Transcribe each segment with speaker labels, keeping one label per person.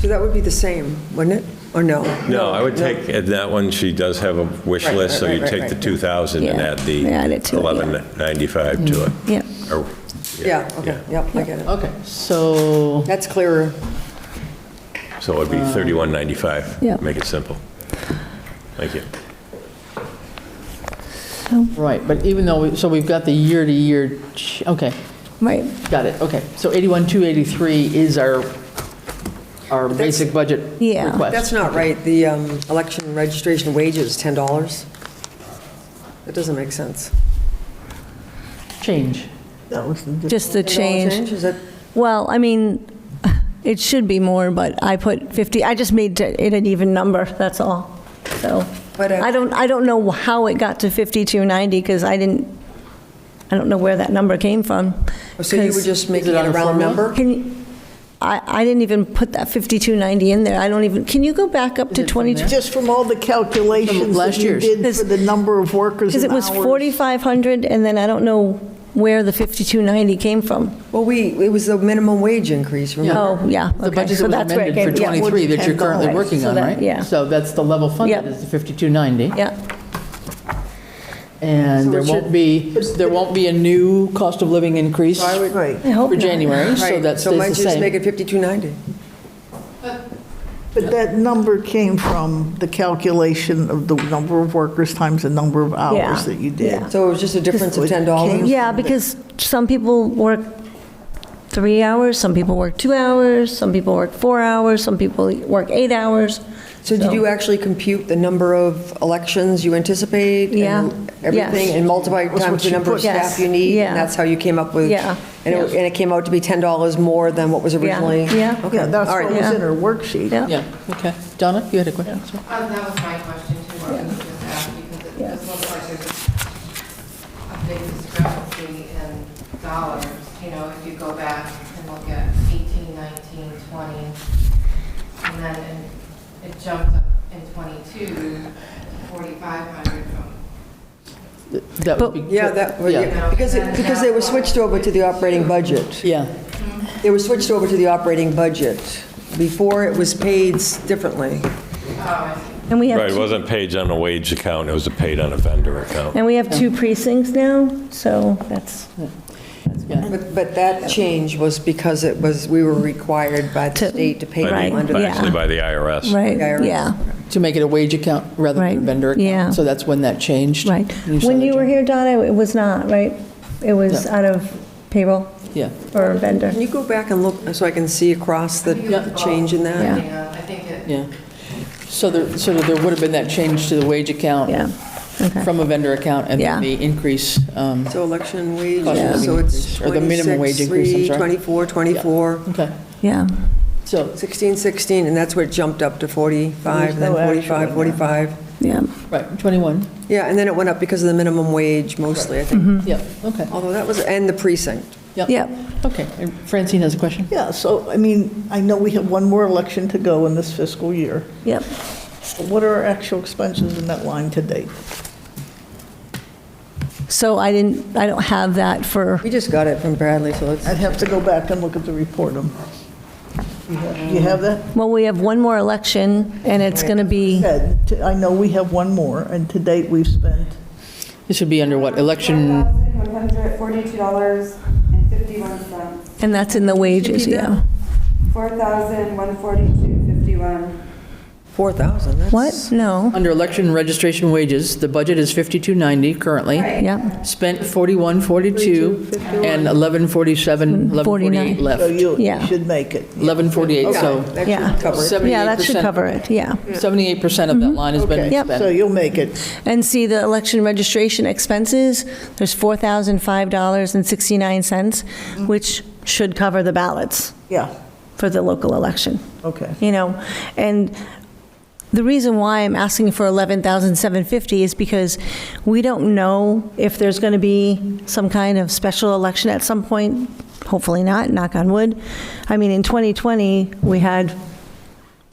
Speaker 1: So that would be the same, wouldn't it? Or no?
Speaker 2: No, I would take, at that one, she does have a wish
Speaker 1: Right,
Speaker 2: list, so
Speaker 1: right,
Speaker 2: you
Speaker 1: right,
Speaker 2: take the
Speaker 1: right.
Speaker 2: 2,000 and
Speaker 3: Yeah,
Speaker 2: add the
Speaker 3: add it to it, yeah. Mm.
Speaker 2: 1195 to it.
Speaker 3: Yeah.
Speaker 2: Or-
Speaker 1: Yeah, okay, yep, I get it.
Speaker 4: Okay, so,
Speaker 1: That's clearer.
Speaker 2: So it'd be 3195.
Speaker 3: Uh, Yeah.
Speaker 2: Make it simple. Thank you.
Speaker 4: right, but even though, we- so we've got the year-to-year, ch- okay,
Speaker 3: Right,
Speaker 4: got it, okay. So 81, 283 is our, our basic budget
Speaker 3: Yeah.
Speaker 4: request.
Speaker 1: That's not right. The um, election registration wage is $10. That doesn't make sense.
Speaker 4: Change.
Speaker 3: just the
Speaker 1: $10
Speaker 3: change.
Speaker 1: Is that, oh,
Speaker 3: Well, I mean, it should be more, but I put 50, I just made it an even number, that's all. So,
Speaker 1: But, uh,
Speaker 3: I don't, I don't know how it got to 5290, because I didn't, I don't know where that number came from.
Speaker 1: Oh, so you were
Speaker 3: 'cause-
Speaker 1: just making
Speaker 4: it
Speaker 1: it
Speaker 4: on
Speaker 1: a
Speaker 4: a
Speaker 1: round
Speaker 4: formula?
Speaker 1: number?
Speaker 3: Can, you- I, I didn't even put that 5290 in there, I don't even, can you go back up to 22?
Speaker 5: Just from all the calculations
Speaker 4: last
Speaker 5: that you
Speaker 4: year's.
Speaker 5: did for the number of workers
Speaker 3: Because
Speaker 5: and
Speaker 3: it was
Speaker 5: hours.
Speaker 3: 4,500, and then I don't know where the 5290 came from.
Speaker 1: Well, we, it was the minimum wage increase, remember?
Speaker 3: Oh, yeah,
Speaker 4: The
Speaker 3: okay,
Speaker 4: budget
Speaker 3: so
Speaker 4: that was
Speaker 3: that's where it
Speaker 4: amended
Speaker 3: came
Speaker 4: for
Speaker 3: from. Yeah.
Speaker 4: 23 that you're currently
Speaker 3: Right,
Speaker 4: working
Speaker 3: so
Speaker 4: on,
Speaker 3: that-
Speaker 4: right?
Speaker 3: yeah.
Speaker 4: So that's the level funded
Speaker 3: Yep.
Speaker 4: is the 5290.
Speaker 3: Yeah.
Speaker 4: And there won't be, there won't be a new cost of living increase for
Speaker 5: Right.
Speaker 3: I hope not.
Speaker 4: January, Oh, so
Speaker 1: Right,
Speaker 4: that
Speaker 1: So might you
Speaker 4: stays the
Speaker 1: just make
Speaker 4: same.
Speaker 1: it 5290?
Speaker 5: But that number came from the calculation of the number of workers times the number of
Speaker 3: Yeah,
Speaker 5: hours that you did.
Speaker 3: yeah.
Speaker 1: So it was just a difference of
Speaker 5: Just-
Speaker 1: $10?
Speaker 3: Yeah, because some people work three hours, some people work two hours, some people work four hours, some people work eight hours.
Speaker 1: So did you actually compute the number of elections you anticipate? and
Speaker 3: Yeah.
Speaker 1: Everything,
Speaker 3: Yes.
Speaker 1: and multiply it
Speaker 5: That's
Speaker 1: times
Speaker 5: what
Speaker 1: the
Speaker 5: you
Speaker 1: number of
Speaker 5: put.
Speaker 1: staff
Speaker 3: Yes.
Speaker 1: you need?
Speaker 3: Yeah.
Speaker 1: And that's how you came up with?
Speaker 3: Yeah.
Speaker 1: And it and it came out to be $10 more than what was originally?
Speaker 3: Yeah.
Speaker 1: Okay.
Speaker 5: Yeah, that's
Speaker 1: All
Speaker 5: what
Speaker 1: right.
Speaker 5: was
Speaker 3: Yeah.
Speaker 5: in her worksheet.
Speaker 3: Yeah.
Speaker 4: Yeah, okay. Donna, you had a question? Sorry.
Speaker 6: Um, That was my question too, what you just asked, because it does look like there's a big discrepancy in dollars. You know, if you go back and look at 18, 19, 20, and then in- it jumped up in 22, to 4,500 from,
Speaker 4: That would be-
Speaker 1: Yeah, that, well, yeah, because, it- because they were switched over to the operating budget.
Speaker 4: Yeah,
Speaker 1: They were switched over to the operating budget. Before, it was paid s- differently.
Speaker 3: And we
Speaker 2: Right,
Speaker 3: have,
Speaker 2: it
Speaker 3: two-
Speaker 2: wasn't paid on a wage account, it was paid on a vendor account.
Speaker 3: and we have two precincts now, so that's
Speaker 1: But, but that change was because it was, we were required by the
Speaker 3: To-
Speaker 1: state to pay
Speaker 2: By the-
Speaker 1: them under
Speaker 2: by-
Speaker 1: the
Speaker 3: yeah.
Speaker 2: Actually, by the IRS.
Speaker 3: right,
Speaker 1: Yeah, right.
Speaker 3: yeah,
Speaker 4: to make it a wage account rather
Speaker 3: Right,
Speaker 4: than a vendor account.
Speaker 3: yeah.
Speaker 4: So that's when that changed.
Speaker 3: right.
Speaker 4: saw
Speaker 3: When
Speaker 4: that
Speaker 3: you were
Speaker 4: change.
Speaker 3: here, Donna, it was not, right? It was out of payroll
Speaker 4: Yeah.
Speaker 3: or vendor?
Speaker 1: Can you go back and look, so I can see across the the change in that?
Speaker 3: Yeah.
Speaker 6: you know, I think it
Speaker 4: Yeah. So there, so there would have been that change to the wage account
Speaker 3: Yeah, okay.
Speaker 4: from a vendor account and then
Speaker 3: Yeah.
Speaker 4: the increase. um,
Speaker 1: So election
Speaker 4: Cost of
Speaker 1: wages,
Speaker 4: living
Speaker 1: so it's
Speaker 4: increase, or the minimum wage
Speaker 1: 26,
Speaker 4: increase, I'm
Speaker 1: 3,
Speaker 4: sorry.
Speaker 1: 24, 24,
Speaker 4: Okay,
Speaker 3: Yeah,
Speaker 4: so,
Speaker 1: 16, 16, and that's where it jumped up to 45, then 45, 45.
Speaker 3: yeah.
Speaker 4: right, 21,
Speaker 1: Yeah, and then it went up because of the minimum wage mostly, I think.
Speaker 3: Mm-hmm.
Speaker 4: yeah, okay,
Speaker 1: Although that was, and the precinct.
Speaker 3: Yep.
Speaker 4: okay. And Francine has a question?
Speaker 5: Yeah, so, I mean, I know we have one more election to go in this fiscal year.
Speaker 3: Yep.
Speaker 5: What are our actual expenses in that line to date?
Speaker 3: So I didn't, I don't have that for,
Speaker 1: We just got it from Bradley, so let's,
Speaker 5: I'd have to go back and look at the report. um, You have- you have that?
Speaker 3: well, we have one more election, and it's going to be,
Speaker 5: Ted, t- I know we have one more, and to date, we've spent,
Speaker 4: This would be under what, election?
Speaker 7: $1,142.51.
Speaker 3: and that's in the wages, yeah.
Speaker 7: $4,142.51.
Speaker 1: 4,000, that's.
Speaker 3: What? No.
Speaker 4: Under election registration wages, the budget is 5290 currently.
Speaker 3: Yep.
Speaker 4: Spent 4142 and 1147, 1148
Speaker 3: 49.
Speaker 4: left.
Speaker 5: so you you
Speaker 3: Yeah.
Speaker 5: should make it.
Speaker 4: 1148, so
Speaker 1: That
Speaker 3: Yeah.
Speaker 1: should cover it.
Speaker 3: Yeah, that should
Speaker 4: 78%.
Speaker 3: cover it, yeah.
Speaker 4: 78% of that line has been
Speaker 5: Mm-hmm. Okay,
Speaker 4: spent.
Speaker 5: So you'll make it.
Speaker 3: And see, the election registration expenses, there's $4,005.69, which should cover the ballots
Speaker 5: Yeah,
Speaker 3: for the local election.
Speaker 5: okay.
Speaker 3: you know, and the reason why I'm asking for 11,750 is because we don't know if there's going to be some kind of special election at some point, hopefully not, knock on wood. I mean, in 2020, we had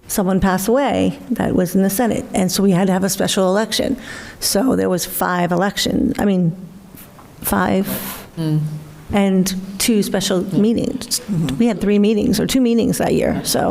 Speaker 3: someone pass away that was in the Senate, and so we had to have a special election. So there was five elections, I mean, five, and two special meetings. We had three meetings, or two meetings that year, so.